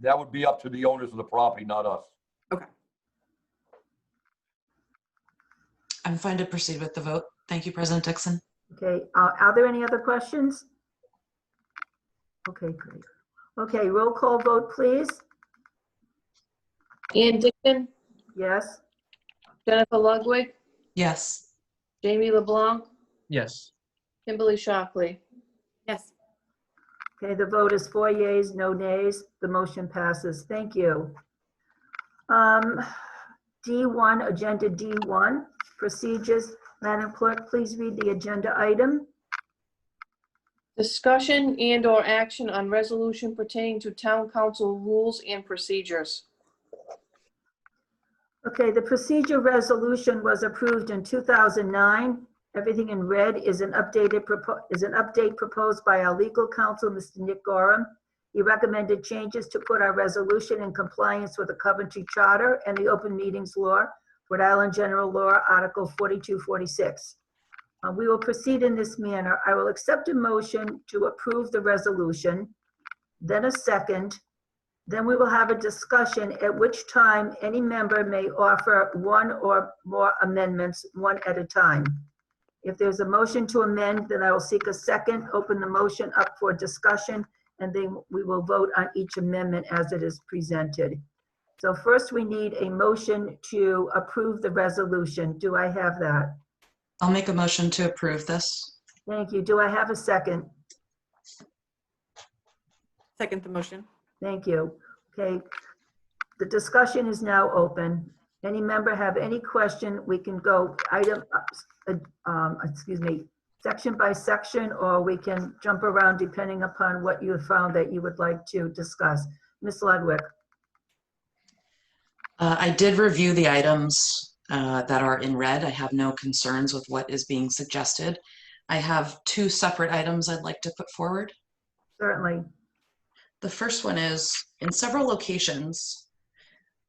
That would be up to the owners of the property, not us. I'm fine to proceed with the vote. Thank you, President Dixon. Okay, uh, are there any other questions? Okay, great. Okay, roll call vote, please. Ann Dixon, Yes, Jennifer Ludwig, Yes, Jamie LeBlanc, Yes. Kimberly Shockley. Yes. okay, the vote is four yeas, no nays. The motion passes. Thank you. Um, D1, Agenda D1, Procedures. Madam Clerk, please read the agenda item. Discussion and/or action on resolution pertaining to town council rules and procedures. Okay, the procedure resolution was approved in 2009. Everything in red is an updated, propo- is an update proposed by our legal counsel, Mr. Nick Gorham. He recommended changes to put our resolution in compliance with the Coventry Charter and the Open Meetings Law, Rhode Island General Law, Article 4246. Uh, We will proceed in this manner. I will accept a motion to approve the resolution, then a second, then we will have a discussion at which time any member may offer one or more amendments, one at a time. If there's a motion to amend, then I will seek a second, open the motion up for discussion, and then we will vote on each amendment as it is presented. So first, we need a motion to approve the resolution. Do I have that? I'll make a motion to approve this. Thank you. Do I have a second? Second the motion. Thank you. Okay. The discussion is now open. Any member have any question, we can go item, uh, um, excuse me, section by section, or we can jump around depending upon what you have found that you would like to discuss. Ms. Ludwig, Uh, I did review the items uh, that are in red. I have no concerns with what is being suggested. I have two separate items I'd like to put forward. certainly. The first one is in several locations,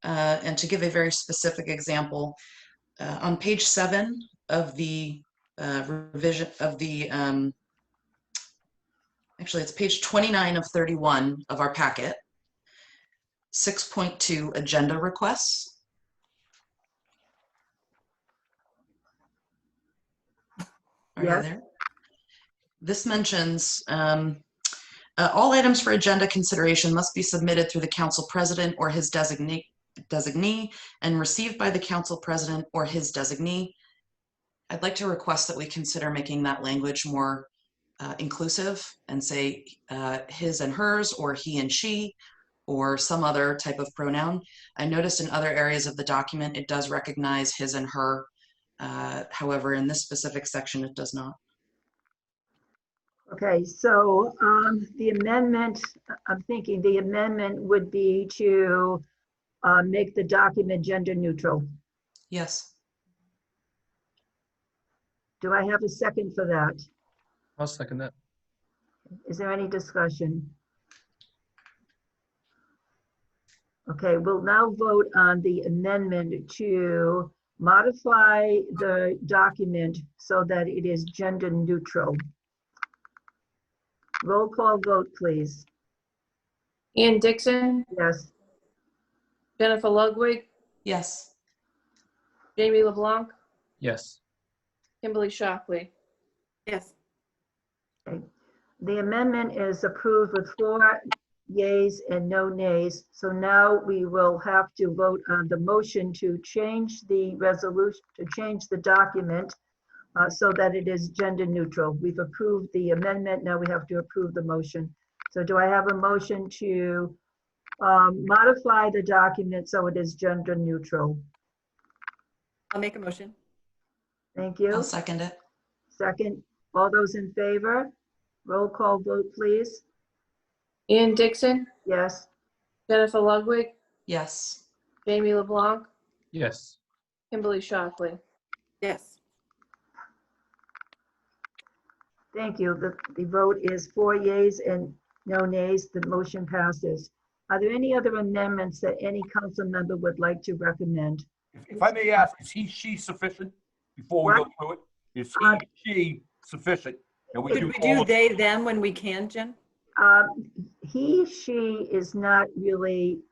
uh, and to give a very specific example, uh, on page seven of the uh, revision of the, um, actually, it's page 29 of 31 of our packet, 6.2 agenda requests. Are you Yes. there? This mentions, um, uh, all items for agenda consideration must be submitted through the council president or his designate, designee and received by the council president or his designee. I'd like to request that we consider making that language more uh, inclusive and say uh, his and hers or he and she or some other type of pronoun. I noticed in other areas of the document, it does recognize his and her. Uh, However, in this specific section, it does not. Okay, so um, the amendment, I'm thinking the amendment would be to uh, make the document gender neutral. Yes. Do I have a second for that? I'll second that. Is there any discussion? Okay, we'll now vote on the amendment to modify the document so that it is gender neutral. Roll call vote, please. Ann Dixon, Yes, Jennifer Ludwig, Yes. Jamie LeBlanc, Yes. Kimberly Shockley. Yes. the amendment is approved with four yays and no nays. So now we will have to vote on the motion to change the resolution, to change the document uh, so that it is gender neutral. We've approved the amendment, now we have to approve the motion. So do I have a motion to um, modify the document so it is gender neutral? I'll make a motion. Thank you. I'll second it. Second, all those in favor? Roll call vote, please. Ann Dixon, Yes, Jennifer Ludwig, Yes. Jamie LeBlanc, Yes. Kimberly Shockley. Yes. thank you. The, the vote is four yays and no nays. The motion passes. Are there any other amendments that any council member would like to recommend? If- If I may ask, is he, she sufficient before we go What? through it? Is Uh, he, she sufficient? And we Could do we all do of- they, them when we can, Jen? Um, He, she is not really